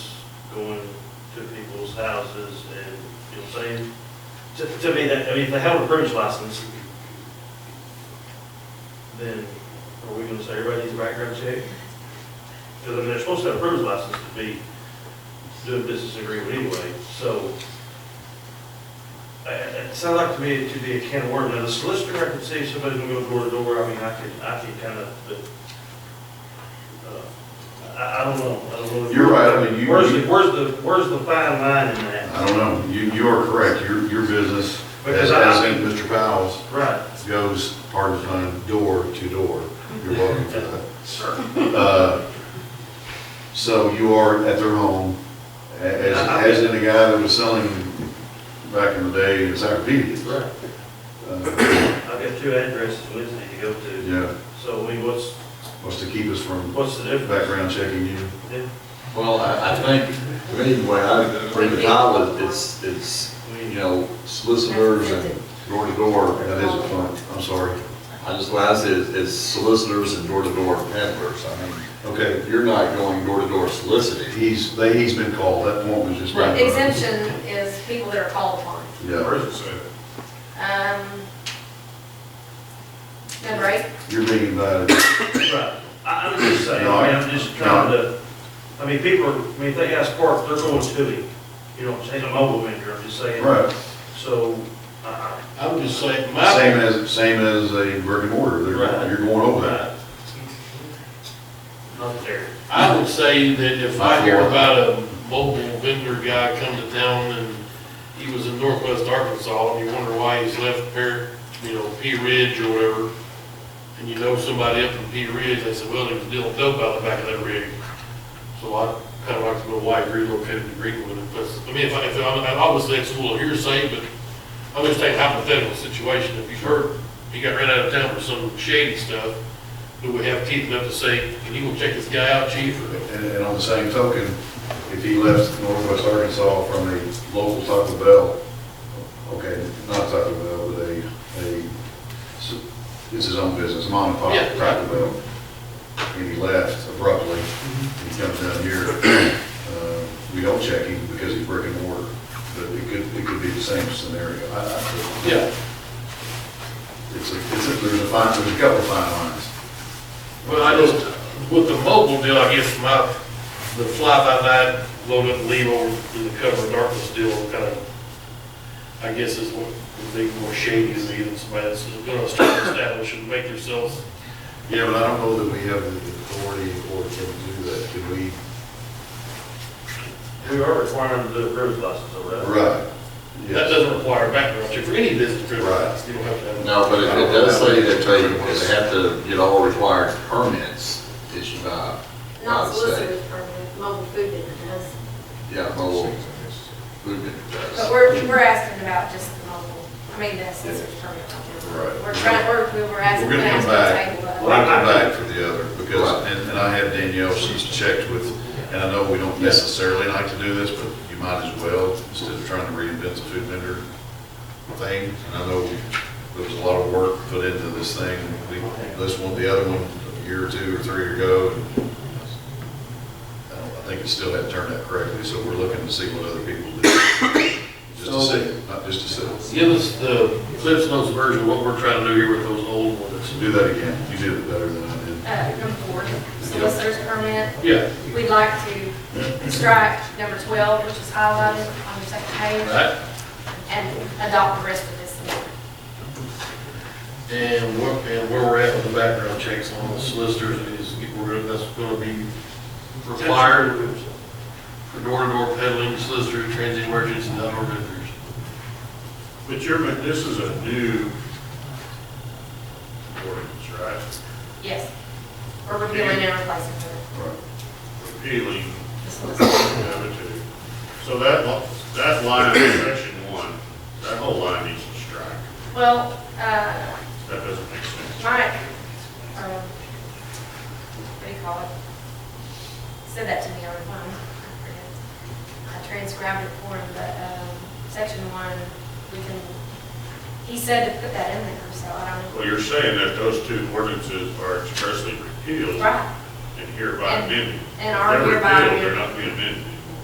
going to people's houses and, you know, what I'm saying, to, to me, that, I mean, if they have a permit license, then are we gonna say everybody needs a background check? Because I mean, they're supposed to have a permit license to be doing business agreement anyway, so. I- I- It sounds like to me to be a can of worms. Now, the solicitor, I can see somebody gonna go door to door, I mean, I can, I can kind of, but, uh, I, I don't know, I don't know. You're right, I mean, you- Where's the, where's the, where's the fine line in that? I don't know, you, you are correct, your, your business, Because as, I- as in Mr. Powell's, Right. goes part of the time door to door. You're welcome for that. Sir. Uh, So you are at their home, a- as, as in the guy that was selling back in the day encyclopedias. Right. Uh, I've got two addresses Wednesday to go to, Yeah, so I mean, what's, was to keep us from what's the difference? background checking you. Yeah, Well, I, I think, if anyway, I, for the title, it's, it's, you know, solicitors and Door to door, that isn't fun, I'm sorry. I just, what I said is, is solicitors and door-to-door peddlers. I mean, Okay, if you're not going door-to-door soliciting. he's, they, he's been called, that point was just. The exemption is people that are called upon. Yeah, Um, Number eight, you're being uh, invited. Right, I, I'm just saying, No, I I- mean, I'm just trying to, I mean, people, are- I mean, if they ask park, they're going to it. You know, what I'm saying, I'm over winter, I'm just saying. Right, So, uh, I, I'm just saying, same my, as, same as a brick and mortar, Right. They're- you're going over that. I, uh, not there. I would say that if I hear about a mobile vendor guy come to town and he was in northwest Arkansas and you wonder why he's left Par, you know, P Ridge or whatever, and you know somebody up in P Ridge, they said, well, he was dealing dope out the back of that rig. So I kind of like to know why he relocated to Greenwood, and plus, I mean, if I, if I'm, I'm obviously it's a little hearsay, but I'm just taking hypothetical situation, if you've heard, he got ran out of town for some shady stuff, do we have teeth enough to say, can you go check this guy out, chief, or? And, and on the same token, if he left Northwest Arkansas from a local Taco Bell, okay, not Taco Bell, but a, a, it's his own business, mom and pop, Yeah. Taco Bell, and he left abruptly, he comes down here, uh, we don't check him because he's brick and mortar, but it could, it could be the same scenario. I- I- Yeah. It's a, it's a, there's a fine, there's a couple of fine lines. Well, I just, with the mobile deal, I guess my, the fly-by-night, load up, and leave over in the cover of darkness deal, kind of, I guess is what would be more shady than even somebody that's gonna start establishing, make themselves, Yeah, but I don't know that we have the authority or can do that, can we? We are requiring them to do a driver's license over there. Right. that doesn't require a background check for any business trip. Right. You don't have to have. No, but it it does say that they, that they have to get all required permits issued by, by the not state. solicitors permit, mobile food business. Yeah, mobile food vendor But does. we're, we're asking about just the mobile, I mean, the solicitor's permit. Right. We're trying, we're, we we're asking. We're gonna come to back. table that. We're gonna come back for the other, because, and, and I have Danielle, she's checked with, and I know we don't necessarily like to do this, but you might as well, instead of trying to reinvent the food vendor thing, and I know there was a lot of work put into this thing, we, this one, the other one, a year or two or three ago. and I don't- I think it still hadn't turned out correctly, so we're looking to see what other people do, just to see, not just to see, Give us the Cliff's Notes version of what we're trying to do here with those old ones. do that again, you did it better than I did. Uh, number four, solicitor's permit. Yeah, We'd like to strike number 12, which is highlighted on the second page, right, and adopt the rest of this. amendment. and where, and where we're at with the background checks on the solicitors is, we're, gonna- that's gonna be required. for door-to-door peddling, solicitor, transient merchants, and outdoor vendors. But you're, but this is a new ordinance, right? Yes. Or repealing and replacing it. Repealing The solicitor. the other two. So that, lo- that line in section one, that whole line needs to strike. Well, uh, That doesn't make sense. Mike, um, what do you call it? Said that to me on the phone. I forget. I transcribed it for him, but, um, section one, we can, he said to put that in there, so I don't know. Well, you're saying that those two ordinances are expressly repealed Right, and hereby amended. and are If they're hereby repealed, amended. They're not being amended.